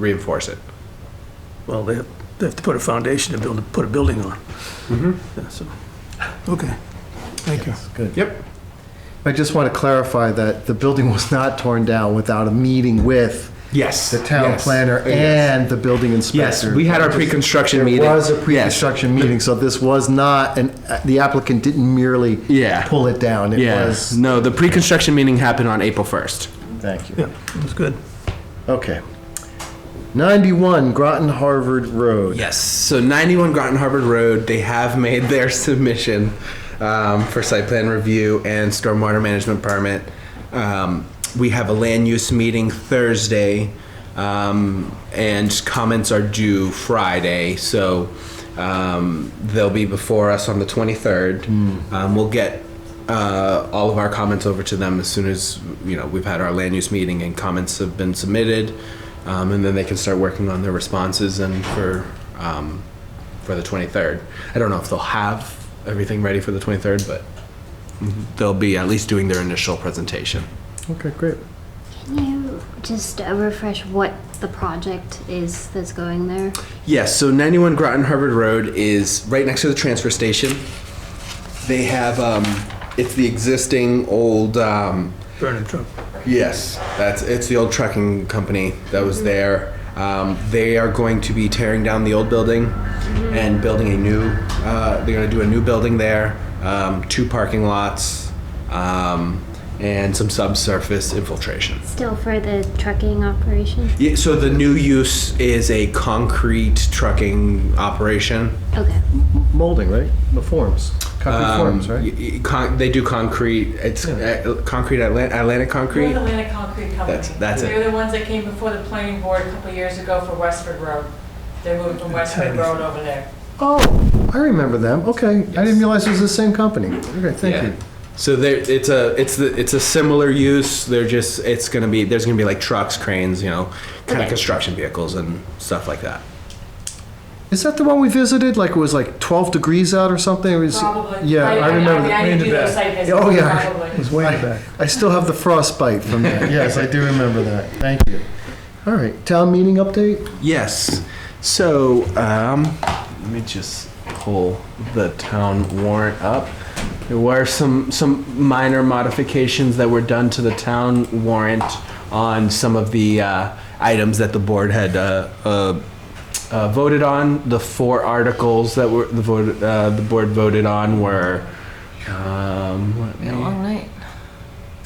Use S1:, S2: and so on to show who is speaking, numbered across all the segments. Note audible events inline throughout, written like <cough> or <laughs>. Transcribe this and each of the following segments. S1: reinforce it.
S2: Well, they have, they have to put a foundation to build, put a building on.
S1: Mm-hmm.
S2: Yeah, so, okay, thank you.
S3: Good.
S1: Yep.
S3: I just want to clarify that the building was not torn down without a meeting with
S1: Yes.
S3: the town
S1: Yes.
S3: planner
S1: Yes.
S3: and the building
S1: Yes,
S3: inspector.
S1: we had our pre-construction meeting.
S3: There was a
S1: Yes.
S3: pre-construction meeting, so this was not, and the applicant didn't merely
S1: Yeah.
S3: pull it down. It
S1: Yeah.
S3: was,
S1: No, the pre-construction meeting happened on April 1st.
S3: thank you.
S2: Yeah, it was good.
S3: Okay. 91 Groton Harvard Road.
S1: Yes. So 91 Groton Harvard Road, they have made their <laughs> submission um, for site plan review and stormwater management permit. Um, we have a land use meeting Thursday, um, and comments are due Friday. So um, they'll be before us on the 23rd. Um, we'll get uh, all of our comments over to them as soon as you know we've had our land use meeting and comments have been submitted, um, and then they can start working on their responses and for um, for the 23rd. I don't know if they'll have everything ready for the 23rd, but they'll be at least doing their initial presentation.
S3: Okay, great.
S4: Can you just uh, refresh what the project is that's going there?
S1: Yes, so 91 Groton Harvard Road is right next to the transfer station. They have um, it's the existing old. Um,
S2: Burning truck.
S1: Yes, that's it's the old trucking company that was there. Um, they are going to be tearing down the old building and building a new. Uh, they're going to do a new building there, um, two parking lots, um, and some subsurface infiltration.
S4: Still for the trucking operation?
S1: Yeah, so the new use is a concrete trucking operation.
S4: Okay.
S3: Molding, right? The forms, concrete forms,
S1: Um,
S3: right?
S1: y- y- con- they do concrete. It's uh, concrete Atlantic, Atlantic
S5: North
S1: concrete.
S5: Atlantic Concrete Company.
S1: That's- that's it.
S5: They're the ones that came before the planning board a couple years ago for Westford Road. They moved from Westford Road over there.
S3: Oh, I remember them. Okay, I didn't realize it was the same company. Okay, thank
S1: Yeah.
S3: you.
S1: So there, it's a, it's the, it's a similar use. They're just, it's gonna be, there's gonna be like trucks, cranes, you know, kind of
S4: Okay.
S1: construction vehicles and stuff like that.
S3: Is that the one we visited? Like it was like 12 degrees out or something? It was-
S5: Probably.
S3: Yeah, I remember.
S5: mean, I
S3: that.
S5: didn't
S2: in
S5: do
S2: the
S5: those
S2: back.
S5: site visits.
S3: Oh, yeah.
S5: probably.
S2: It's way in the back.
S3: I still have the frostbite from that. <laughs> Yes, I do remember that. Thank you. All right, town meeting update?
S1: Yes. So, um, let me just pull the town warrant up. There were some, some minor modifications that were done to the town warrant on some of the, uh, items that the board had, uh, uh, uh, voted on. The four articles that were, the vote, uh, the board voted on were, um, let me-
S5: night.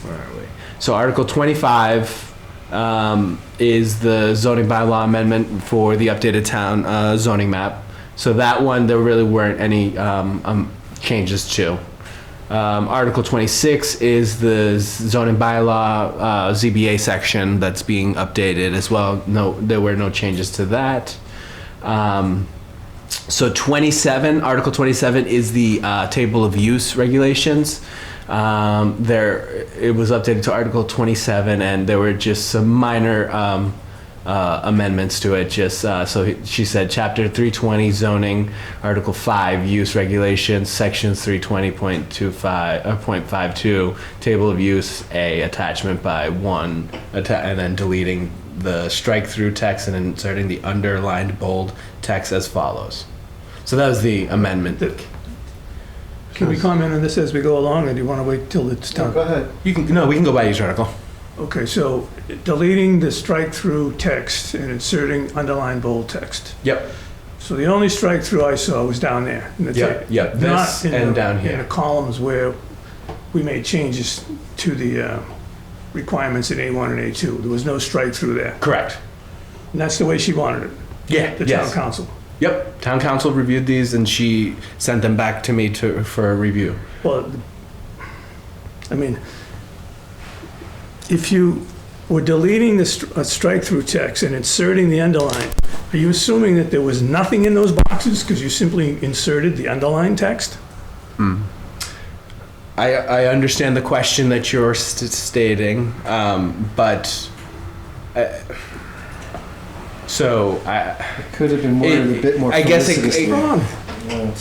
S1: where are we? So Article 25 um, is the zoning bylaw amendment for the updated town uh, zoning map. So that one, there really weren't any um, um, changes to. Um, Article 26 is the zoning bylaw uh, ZBA section that's being updated as well. No, there were no changes to that. Um, so 27, Article 27 is the uh, table of use regulations. Um, there, it was updated to Article 27, and there were just some minor um, uh, amendments to it. Just uh, so he- she said, Chapter 320 zoning, Article 5 use regulations, sections 320.25 uh, 0.52 table of use a attachment by one, atta- and then deleting the strike through text and inserting the underlined bold text as follows. So that was the amendment.
S2: Can we comment on this as we go along, or do you want to wait till it's done?
S3: ahead.
S1: You can no, we can go by each article.
S2: Okay, so deleting the strike-through text and inserting underlined bold text.
S1: Yep.
S2: So the only strike-through I saw was down there. in the
S1: Yeah,
S2: text.
S1: yeah, this
S2: Not in the-
S1: and down
S2: In
S1: here.
S2: the columns where we made changes to the uh, requirements in A1 and A2. There was no strike-through there.
S1: Correct.
S2: And that's the way she wanted it,
S1: Yeah.
S2: the town
S1: yes.
S2: council.
S1: Yep. Town council reviewed these and she sent them back to me to for review.
S2: Well, I mean, if you were deleting the str- uh, strike-through text and inserting the underline, are you assuming that there was nothing in those boxes because you simply inserted the underline text?
S1: I I understand the question that you're st- stating, um, but. Uh, so I,
S3: Could have been worded a bit more
S1: I guess it-
S3: felicitously.
S1: it-
S2: Wrong.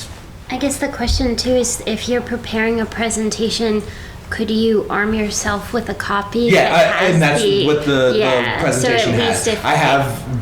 S4: I guess the question too is if you're preparing a presentation, could you arm yourself with a copy?
S1: yeah,
S4: that
S1: I,
S4: has
S1: and that's
S4: the-
S1: what the,
S4: yeah,
S1: the presentation
S4: so at
S1: has.
S4: Least if,
S1: I have